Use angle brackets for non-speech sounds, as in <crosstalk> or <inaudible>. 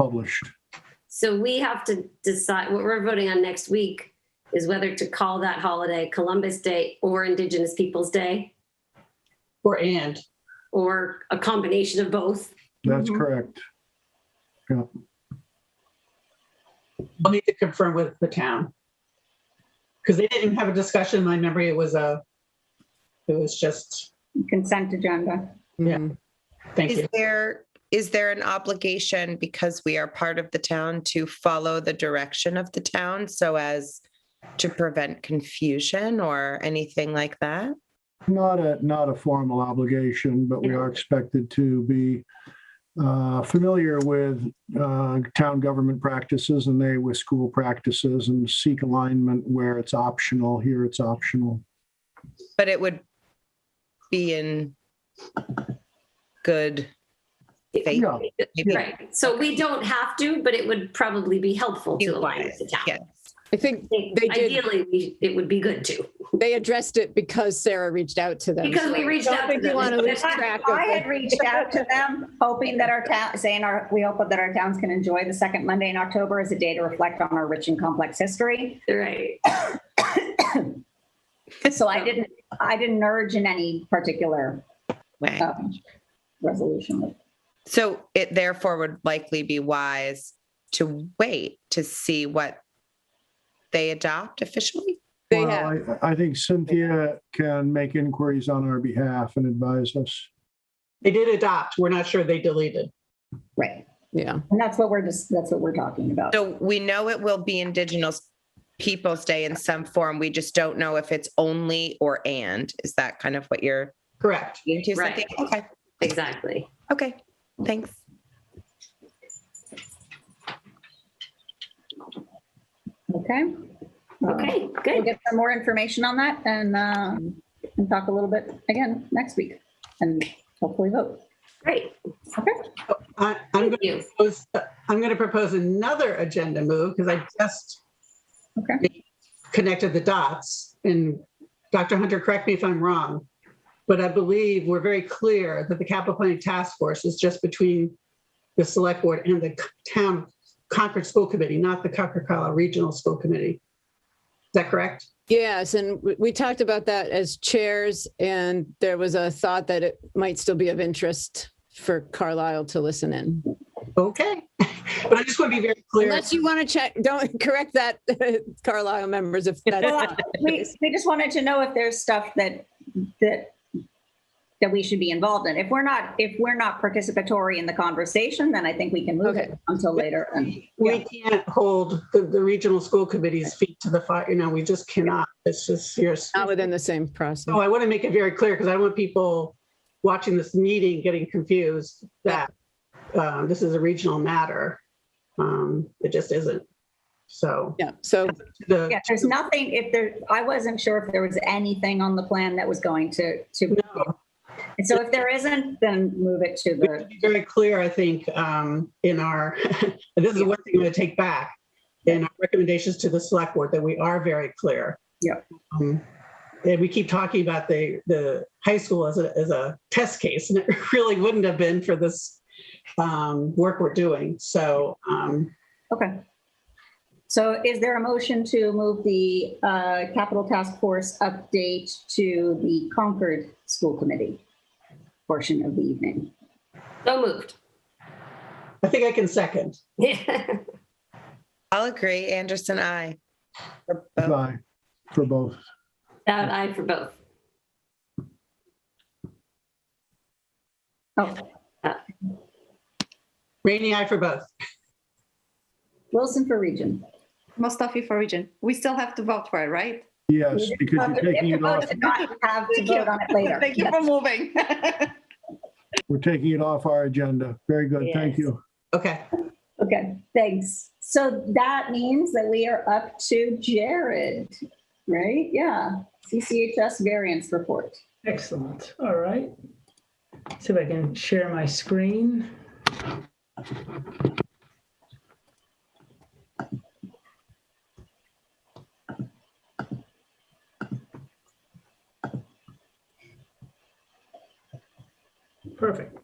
published. So we have to decide, what we're voting on next week is whether to call that holiday Columbus Day or Indigenous Peoples' Day, Or and. or a combination of both. That's Mhm. correct. I'll need to confirm with the town. Because they didn't have a discussion. My memory, it was a, it was just, consent agenda. Yeah. Mhm. Mm-hmm. thank Is you. there, is there an obligation because we are part of the town to follow the direction of the town so as to prevent confusion or anything like that? Not a, not a formal obligation, but we are expected to be uh, familiar with uh, town government practices and they with school practices and seek alignment where it's optional. Here it's optional. But it would be in good faith. Yeah. maybe. Right, so we don't have to, but it would probably be helpful to You align want with the town. Yeah. I think I They think did. Ideally, we- it would be good to, they addressed it because Sarah reached out to them. because we reached Don't out to think you wanna them. <laughs> lose track of I it. had reached out to them, hoping that our town, saying our, we hope that our towns can enjoy the second Monday in October as a day to reflect on our rich and complex history. Right, So I didn't, I didn't urge in any particular Way. um, resolution. So it therefore would likely be wise to wait to see what they adopt officially? They Well, have, I- I think Cynthia can make inquiries on our behalf and advise us. They did adopt. We're not sure they deleted. Right. yeah. And that's what we're just, that's what we're talking about. So we know it will be Indigenous Peoples' Day in some form. We just don't know if it's only or and. Is that kind of what you're Correct. getting to? Right. Cynthia? Okay, exactly. okay, thanks. Okay. Uh, Okay, We'll good. get some more information on that and, um, and talk a little bit again next week and hopefully vote. Great, Okay. I, I'm going thank you. propose- I'm going to propose another agenda move because I just Okay. connected the dots. And Dr. Hunter, correct me if I'm wrong, but I believe we're very clear that the capital planning task force is just between the select board and the town Concord School Committee, not the Concord Carlisle Regional School Committee. Is that correct? Yes, and we- we talked about that as chairs, and there was a thought that it might still be of interest for Carlisle to listen in. Okay. <laughs> But I just want to be very clear. Unless you want to check, don't <laughs> correct that, Carlisle members, if that's. Well, We, we just wanted to know if there's stuff that, that, that we should be involved in. If we're not, if we're not participatory in the conversation, then I think we can move it until later. And We can't hold the, the regional school committee's feet to the fire, you know, we just cannot. It's just, you're, Not so within the same process. Oh, Oh, I want to make it very clear because I want people watching this meeting getting confused that um, this is a regional matter. Um, It just isn't. So Yeah, so the, yeah, there's nothing, if there, I wasn't sure if there was anything on the plan that was going to, to. no, And so if there isn't, then move it to we have to the, be very clear, I think, um, in our, <laughs> and this is one thing I'm going to take back in our recommendations to the select board, that we are very clear. Yep. Um, And we keep talking about the, the high school as a, as a test case, and it <laughs> really wouldn't have been for this um, work we're doing. So um, okay. So is there a motion to move the uh, capital task force update to the Concord School Committee portion of the evening? So moved. <laughs> I think I can second. I'll agree, Anderson, I. Bye for both. That I for both. Oh, Rainy eye for both. Wilson for region. Mustafi for region. We still have to vote for it, right? Yes, because you're taking it off, Vote to not Have to vote on it later. Thank you for moving. we're taking it off our agenda. Very good. Thank Yes. you. Okay. Okay, thanks. So that means that we are up to Jared, right? Yeah, CCHS variance report. Excellent, all right. See if I can share my screen. Perfect.